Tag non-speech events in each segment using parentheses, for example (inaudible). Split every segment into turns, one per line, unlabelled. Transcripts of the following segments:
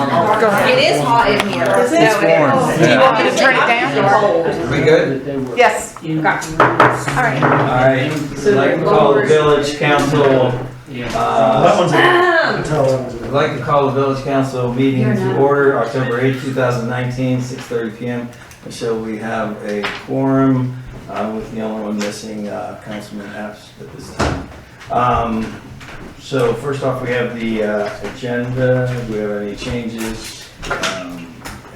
It is hot in here.
Is it?
No,
Oh,
Warm.
Do you want me
Yeah.
to turn it down?
We good?
Yes,
Okay.
all right.
All right, I'd like to call the village council,
That
uh,
one's a, I
Um,
can tell that one's a-
I'd like to call the village council meeting to order, October eighth, two thousand nineteen, six thirty PM. Michelle, we have a quorum, uh, with the only one missing, uh, Councilman Epps at this time. Um, so first off, we have the, uh, agenda, do we have any changes, um,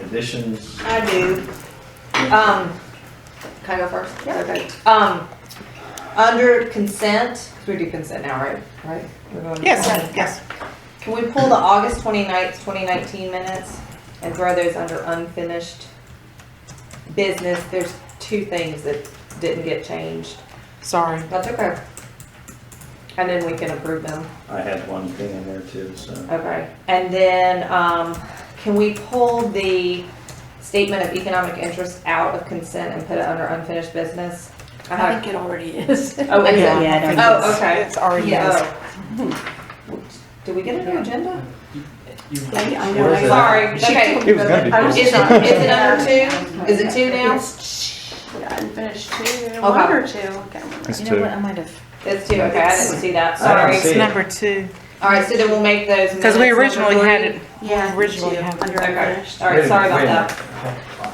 additions?
I do. Um, can I go first? Yeah. Okay. Um, under consent, 'cause we do consent now, right? Right? We're going to
Yes,
consent.
yes.
Can we pull the August 29th, twenty nineteen minutes and throw those under unfinished business? There's two things that didn't get changed.
Sorry.
That's okay. And then we can approve them.
I had one thing in there too, so.
Okay, and then, um, can we pull the statement of economic interest out of consent and put it under unfinished business? I
I
have-
think it already (laughs) is.
Oh, is it?
Yeah, I don't
Oh,
think
okay.
It's already.
Yeah. Did we get a new agenda?
Like, I
Where is it?
know, I-
Sorry, okay.
It was gonna be.
I
Is
was
it, is
just
it
trying to-
(laughs)
under two? Is (laughs) it two now?
Yeah, I finished two, one or two, I can't remember.
It's
You know
two.
what, I might have.
It's two, okay, I didn't see that,
I
sorry.
didn't see it.
Number two,
All right, so then we'll make those.
because we
minutes number
originally had
three.
it,
Yeah.
Originally,
two,
yeah.
Under
Okay,
finished.
all right, sorry about that.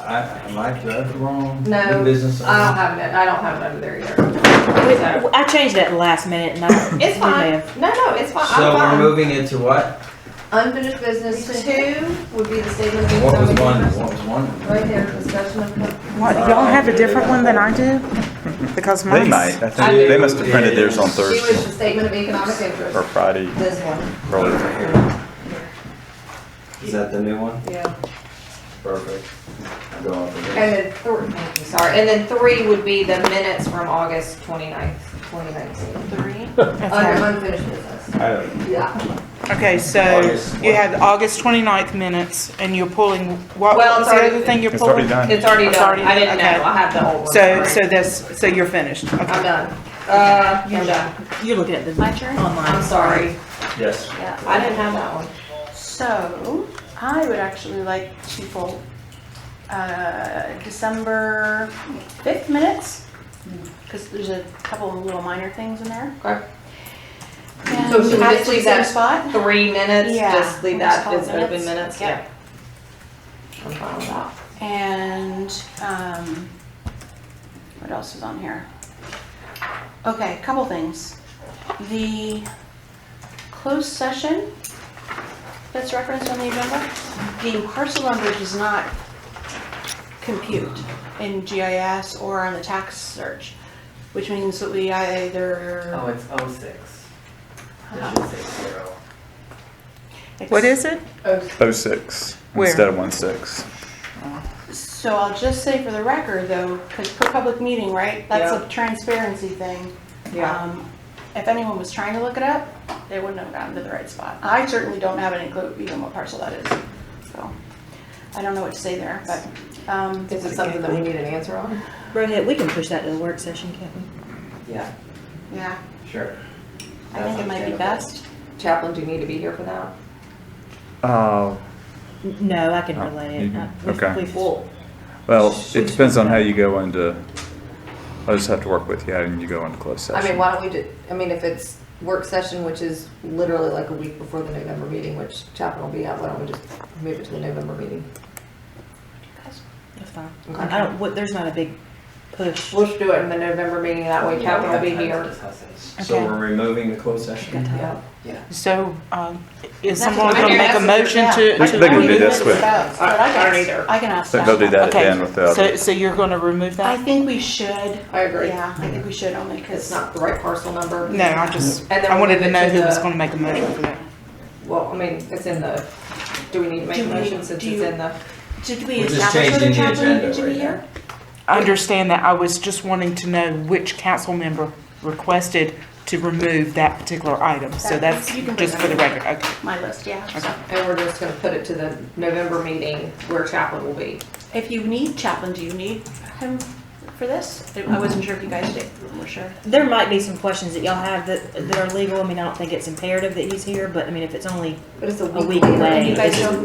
I, am I the wrong?
No, Uh,
New business?
I don't have it, I don't have it under there either. So,
I changed it last minute and I.
It's fine, no, no, it's fine,
So we're
I'm fine.
moving into what?
Unfinished business two would be the statement of
What was
economic
one?
interest.
What was one?
Right there, discussion of.
what, y'all have a different one than I do? Because
They
mine's.
might. I
I
think they
do.
must have printed theirs on
She was
Thursday
the statement of economic
or
interest.
Friday.
This one.
early.
Is that the new one?
Yeah.
Perfect. I'll go off of this.
And then, thr- thank you, sorry, and then three would be the minutes from August 29th, 2019.
Three.
Under
Okay.
unfinished business.
I don't-
Yeah.
Okay, so
August
you
what?
had August 29th minutes and you're pulling, what what was
Well, it's
the
already-
other thing you're
It's already
pulling?
done.
It's already
It's
done.
already-
I didn't know.
okay.
I have the whole one.
So,
Sorry.
so that's, so you're finished.
I'm
Okay.
done. Uh, I'm done.
You're looking at the. My turn?
I'm sorry.
Yes.
Yeah.
I didn't have that one.
So, I would actually like to pull, uh, December fifth minutes, because there's a couple of little minor things in there.
Okay.
And
So should we
add
just
to
leave
the same
that-
Spot.
Three minutes,
Yeah,
just leave
we'll just
that
call it
as open
minutes.
minutes, yeah.
Yep.
I'm fine with that.
And, um, what else is on here? Okay, a couple things. The closed session that's referenced on the agenda, the parcel number does not compute in GIS or on the tax search, which means that we either.
Oh, it's oh six. It
Uh,
should say zero.
What is it?
Oh six
Where?
instead of one six.
So I'll just say for the record though, because per public meeting, right? That's a transparency thing.
Yeah.
Um, If anyone was trying to look it up, they wouldn't have gotten to the right spot. I certainly don't have any clue even what parcel that is, so I don't know what to say there, but, um,
Is it something that we need an answer on?
Rohit, we can push that to the work session, can't we?
Yeah,
yeah,
sure.
I think it might be best.
Chaplain, do you need to be here for that?
Oh,
N- No, I can
Oh,
relay
you
it.
can-
I- we've-
okay.
we've-
Well,
well, it depends on how you go into, I'll just have to work with you, how you go into closed
I mean,
session.
why don't we do, I mean, if it's work session, which is literally like a week before the November meeting, which Chaplain will be at, why don't we just move it to the November meeting?
That's fine.
Okay.
I don't, what- there's not a big push.
We'll just do it in the November meeting, that way
Yeah, we
Chaplain will
have
be
time to
here.
discuss it.
So
Okay.
we're removing the closed session?
Yeah.
So, um, is
That's
someone
what I'm
gonna make a
asking.
motion to?
Yeah.
to
They can do
remove
this
it?
with-
But I
I don't
can-
either.
I can ask
So
that.
they'll do that
Okay.
again with the
So,
other.
so you're gonna remove
I
that?
think we should,
I agree.
yeah, I think we should only because.
It's not the right parcel number.
No, I just,
And then
I wanted to
we'll
know
move it
who
to
was
the-
gonna make a motion for that.
Well, I mean, it's in the, do we need to make a
Do we-
motion since
do
it's
you-
in the?
Did we
We're just
establish whether
changing the
Chaplain needed
agenda
to be
right now.
here?
I understand that, I was just wanting to know which council member requested to remove that particular item, so
That-
that's
you can
just
put
for the
it
record, okay.
My list, yeah. so.
And we're just gonna put it to the November meeting where Chaplain will be.
If you need Chaplain, do you need him for this? I wasn't sure if you guys did, we're sure.
There might be some questions that y'all have that, that are legal. I mean, I don't think it's imperative that he's here, but I mean, if it's only
But it's
a week away.
You guys don't